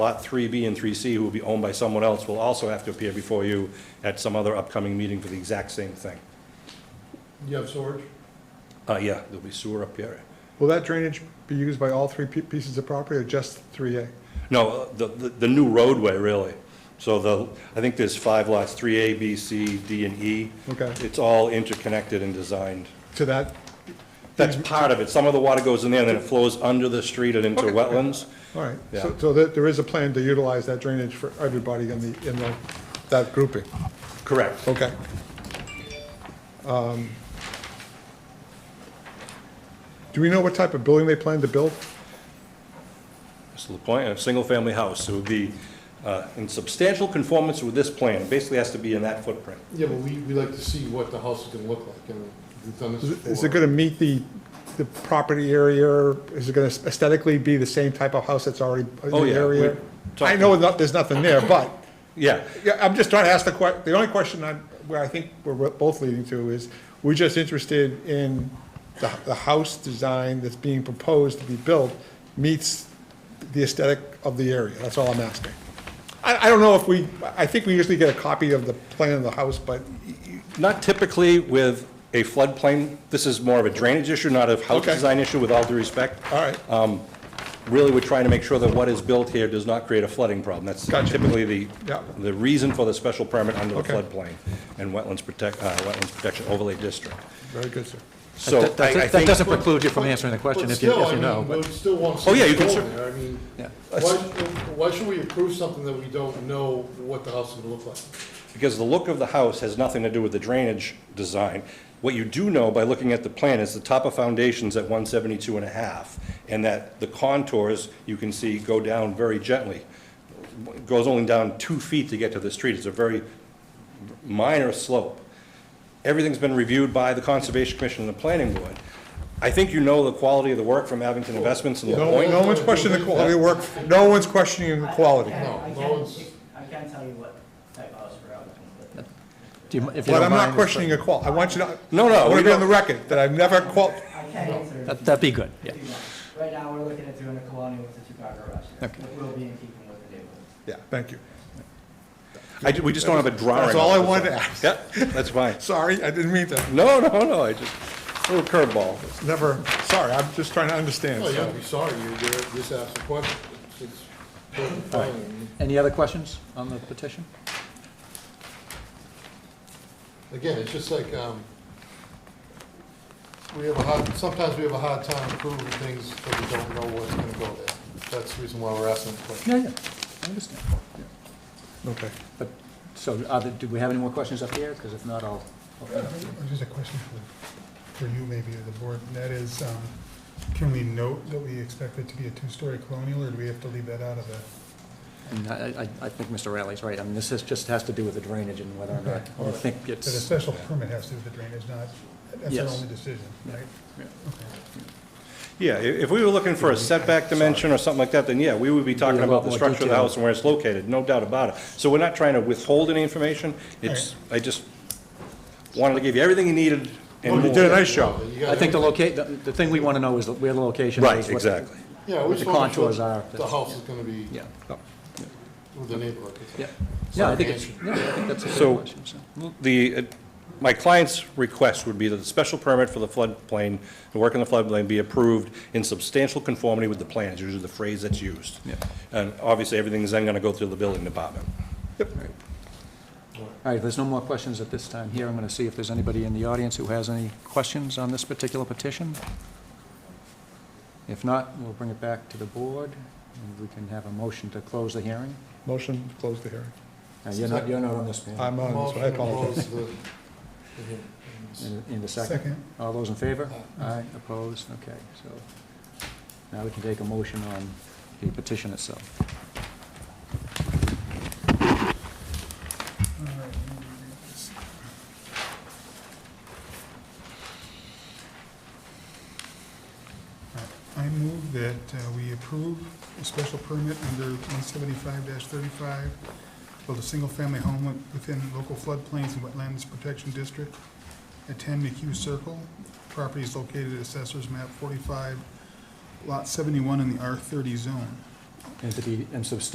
Lot 3B and 3C, who will be owned by someone else, will also have to appear before you at some other upcoming meeting for the exact same thing. You have storage? Uh, yeah, there'll be sewer up here. Will that drainage be used by all three pi- pieces of property or just 3A? No, uh, the, the the new roadway, really. So the, I think there's five lots, 3A, B, C, D, and E. Okay. It's all interconnected and designed. To that, That's part of it. Some of the water goes in there, then it flows under the street and into Okay. wetlands. all right. So- Yeah. So there- there is a plan to utilize that drainage for everybody in the, in the- that grouping? Correct. Okay. Um, Do we know what type of building they plan to build? Mr. LaPointe, a single-family house, so it would be uh, in substantial conformance with this plan, basically has to be in that footprint. Yeah, but we, we like to see what the house is gonna look like, and we've done this Is before. is it going to meet the, the property area? Is it going to aesthetically be the same type of house that's already in Oh, the yeah, area? we- I know not- there's nothing there, but Yeah, Yeah, I'm just trying to ask the que, the only question I, where I think we're both leading to is, we're just interested in the, the house design that's being proposed to be built meets the aesthetic of the area, that's all I'm asking. I, I don't know if we, I think we usually get a copy of the plan of the house, but, not typically with a floodplain. This is more of a drainage issue, not a house Okay. design issue, with all due respect. all right, Really, we're trying to make sure that what is built here does not create a flooding problem. That's Gotcha. typically the, Yeah. the reason for the special permit under the Okay. floodplain and wetlands protect, uh, wetlands protection overlay district. very good, sir. So I That- that- I That think, doesn't preclude you from answering the question But if you, still, if I you mean, know, we but, still want to Oh, see yeah, you what's can going there. I mean, Yeah. why, should- why should we approve something that we don't know what the house is gonna look like? because the look of the house has nothing to do with the drainage design. What you do know by looking at the plan is the top of foundation's at 172 and a half, and that the contours, you can see, go down very gently. It Goes only down two feet to get to the street. It's a very minor slope. Everything's been reviewed by the Conservation Commission and the Planning Board. I think you know the quality of the work from Abington Investments and La No, Pointe. no one's questioning the quality of work, no one's questioning the quality. No, I no can't, one's- I can't tell you what type of house we're out in, but do you- if you But don't I'm not mind. questioning the qual, I want you to. No, no, I want we to be on the don't- record, that I've never qual, I can't answer. that- That'd be good, yeah. if you want. Right now, we're looking at doing a colonial with a two-car garage there, Okay. that will be in keeping with the neighborhood. yeah, thank you. I ju- We just don't have a drawing. That's all I of it. wanted to ask. Yeah, that's fine. Sorry, I didn't mean to. No, no, no, I just, a little curveball. Never, sorry, I'm just trying to understand. Oh, so. yeah, I'd be sorry, you you just asked a question. It's- it's totally fine. Any other questions on the petition? Again, it's just like, um, we have a hard, sometimes we have a hard time approving things that we don't know what's gonna go there. That's the reason why we're asking the question. Yeah, yeah, I understand. Okay. But, so, are there- do we have any more questions up here? Because if not, I'll. Just a question for, for you maybe, or the board, and that is, um, can we note that we expect it to be a two-story colonial, or do we have to leave that out of it? And I, I, I think Mr. Riley's right. I mean, this is, just has to do with the drainage and whether or not, we think That a it's, special permit has to do with the drainage, not, that's our Yes. only decision, right? Yeah, i- if we were looking for a setback dimension or something like that, then yeah, we would be talking a about lot the more structure of the detail. house and where it's located, no doubt about it. So we're not trying to withhold any information, it's, I just wanted to give you everything you needed and You more. did a nice job. You I gotta- think the locate, the, the thing we want to know is where the location is. Right, what- exactly. Yeah, we what the just want to contours know are. the house is gonna be Yeah, with the neighborhood. yeah. Yeah, I think it's, Sorry, yeah, I think that's a So- good question, so. The, uh, my client's request would be that the special permit for the floodplain, the work on the floodplain be approved in substantial conformity with the plans, usually the phrase that's used. Yeah. And obviously, everything's then gonna go through the building department. All right, if there's no more questions at this time here, I'm going to see if there's anybody in the audience who has any questions on this particular petition. If not, we'll bring it back to the board, and we can have a motion to close the hearing. Motion to close the hearing. Now, you're not, you're not on this panel. I'm on, so I Motion to apologize. close the- the- In in the second. Second, All those in favor? Aye, opposed? Okay, so now we can take a motion on the petition itself. all right. let me read this. All right, I move that uh, we approve a special permit under one seventy-five thirty-five, build a single-family home wi- within local floodplains and wetlands protection district at ten McHugh Circle. Property is located at Assessor's Map forty-five, Lot seventy-one in the R thirty zone. And to be, and substantial